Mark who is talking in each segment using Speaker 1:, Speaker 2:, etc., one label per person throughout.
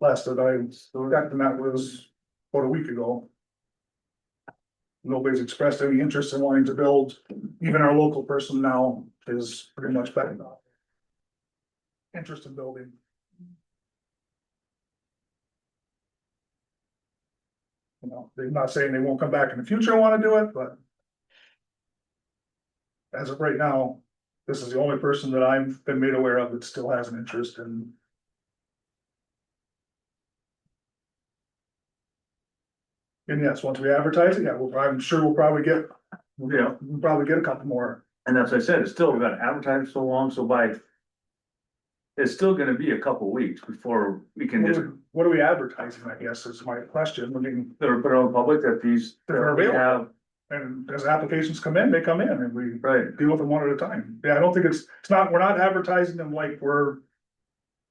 Speaker 1: last that I got them out was about a week ago. Nobody's expressed any interest in wanting to build, even our local person now is pretty much back off. Interest in building. You know, they're not saying they won't come back in the future and wanna do it, but. As of right now, this is the only person that I've been made aware of that still has an interest in And yes, once we advertise it, yeah, we'll, I'm sure we'll probably get, you know, we'll probably get a couple more.
Speaker 2: And as I said, it's still, we've got to advertise so long, so by. It's still gonna be a couple weeks before we can
Speaker 1: What
Speaker 2: just,
Speaker 1: are- what are we advertising, I guess, is my question, I mean,
Speaker 2: that are put on public that these.
Speaker 1: They're
Speaker 2: that we
Speaker 1: available.
Speaker 2: have,
Speaker 1: and as applications come in, they come in and we
Speaker 2: Right,
Speaker 1: deal with them one at a time. Yeah, I don't think it's, it's not, we're not advertising them like we're.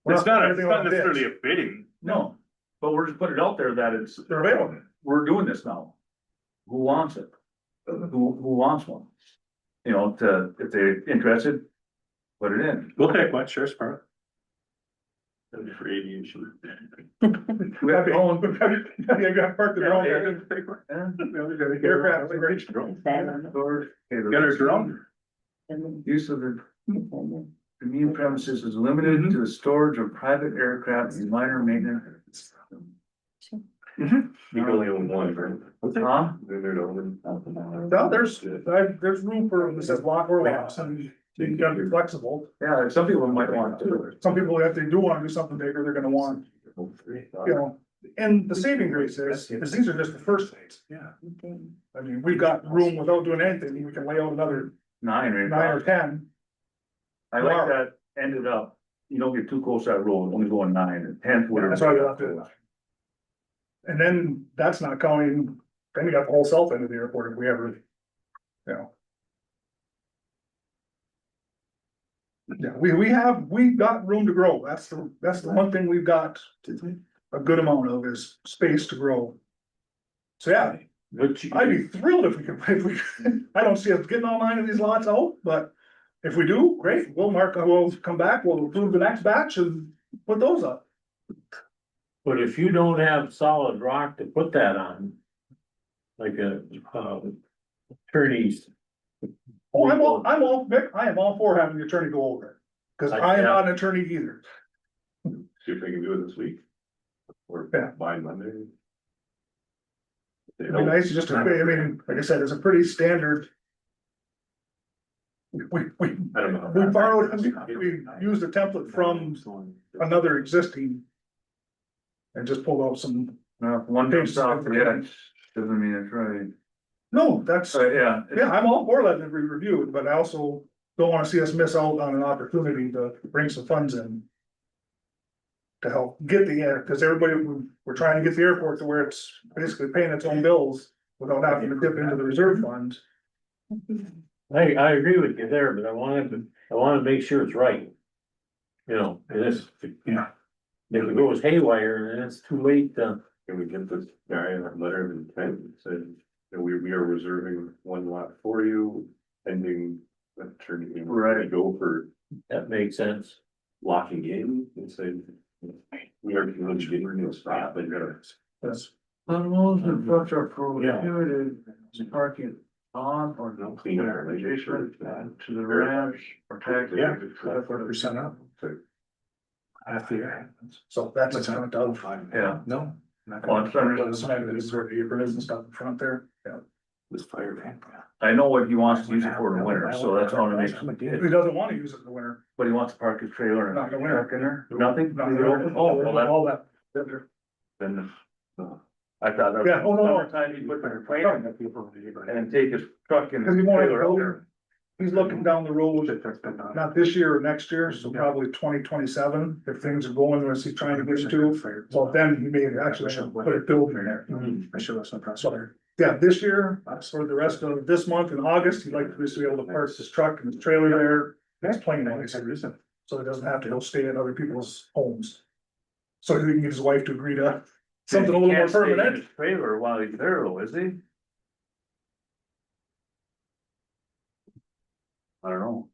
Speaker 1: we're
Speaker 3: It's not,
Speaker 1: putting everything
Speaker 3: it's not
Speaker 1: on bids.
Speaker 3: necessarily a bidding.
Speaker 2: no, but we're just putting it out there that it's,
Speaker 1: They're available,
Speaker 2: we're doing this now. Who wants it? Who, who wants one? You know, to, if they're interested, put it in.
Speaker 3: We'll take one, sure, Sparrow. That'd be for aviation.
Speaker 2: We have
Speaker 1: Happy.
Speaker 2: our own.
Speaker 1: they've got parked their own there. Aircraft,
Speaker 2: né?
Speaker 3: Get a drone.
Speaker 2: Use of the immune premises is
Speaker 1: Mm-hmm.
Speaker 2: limited to the storage of private aircraft and minor maintenance.
Speaker 1: Mm-hmm.
Speaker 4: You can only own one, right?
Speaker 2: Huh?
Speaker 4: Then they're own.
Speaker 1: No, there's, I- there's room for, this says lot or lots, and you gotta be flexible.
Speaker 2: Yeah, some people might want to.
Speaker 1: Some people, if they do wanna do something bigger, they're gonna want you know, and the saving grace is, is these are just the first things.
Speaker 3: Yeah.
Speaker 1: I mean, we've got room without doing anything, we can lay out another
Speaker 2: Nine or
Speaker 1: nine or ten.
Speaker 2: I like that ended up, you don't get too close to that road, only going nine and tenth, whatever.
Speaker 1: That's why we left it. And then that's not counting, then you got the whole south end of the airport if we ever, you know. Yeah, we, we have, we've got room to grow. That's the, that's the one thing we've got a good amount of is space to grow. So yeah,
Speaker 3: But you,
Speaker 1: I'd be thrilled if we could, if we, could. I don't see us getting all nine of these lots out, but if we do, great, we'll mark, we'll come back, we'll approve the next batch and put those up.
Speaker 5: But if you don't have solid rock to put that on. Like a, um, attorneys,
Speaker 1: Oh, I'm all, I'm all, Vic, I am all for having the attorney go over it, cause I am not an attorney either.
Speaker 4: See if they can do it this week. Or
Speaker 1: Yeah.
Speaker 4: by Monday. They
Speaker 1: It'd be
Speaker 4: don't,
Speaker 1: nice to just, I mean, like I said, it's a pretty standard. We, we,
Speaker 4: I don't know.
Speaker 1: we borrowed, we, we used a template from another existing. And just pulled out some,
Speaker 2: Now, if one comes off, yeah, doesn't mean it's right.
Speaker 1: no, that's.
Speaker 2: So, yeah,
Speaker 1: Yeah, I'm all for letting it be reviewed, but I also don't wanna see us miss out on an opportunity to bring some funds in. To help get the air, cause everybody, we- we're trying to get the airport to where it's basically paying its own bills without having to dip into the reserve fund.
Speaker 5: I, I agree with you there, but I wanted to, I wanna make sure it's right. You know, it is.
Speaker 1: Yeah.
Speaker 5: If it goes haywire and it's too late, to
Speaker 4: Can we get this guy a letter of intent and said, that we, we are reserving one lot for you, pending attorney. and we're ready to Go for
Speaker 5: that makes sense.
Speaker 4: locking in and saying. We are getting rid of stop, but you're.
Speaker 1: That's,
Speaker 2: Animals and trucks are prohibited
Speaker 4: Yeah.
Speaker 2: parking on or
Speaker 4: No clean air, like, they should.
Speaker 2: to the ranch or taxi.
Speaker 3: Yeah.
Speaker 4: That's what we're
Speaker 3: set up. After.
Speaker 1: so that's a kind of.
Speaker 2: Yeah,
Speaker 3: No.
Speaker 2: Well, it's under-
Speaker 1: Those kind of reserve aprons and stuff in front there, yeah.
Speaker 3: This fireman.
Speaker 2: I know what he wants to use it for in the winter, so that's all it makes,
Speaker 1: He doesn't wanna use it in the winter,
Speaker 2: but he wants to park his trailer and.
Speaker 1: Not in the winter.
Speaker 2: Park in there, nothing?
Speaker 1: not in the winter.
Speaker 2: Oh, well, that-
Speaker 1: all that.
Speaker 2: then, uh, I thought. that-
Speaker 1: Yeah, oh, no, no.
Speaker 2: Summertime, he'd put their plane in and take his truck and.
Speaker 1: Cause he won't have
Speaker 2: trailer out there.
Speaker 1: road. He's looking down the road, not this year or next year, so probably twenty twenty-seven, if things are going as he's trying to get to. So then you may actually should put a building there.
Speaker 3: Mm-hmm. I should have some press.
Speaker 1: So, yeah, this year, for the rest of this month in August, he'd like to just be able to park his truck and his trailer there. That's plain nice, so he doesn't have to go stay at other people's homes. So he can get his wife to agree to something a little more
Speaker 2: Can't stay in
Speaker 1: permanent.
Speaker 2: his Trailer while he's there, though, is he? I don't know.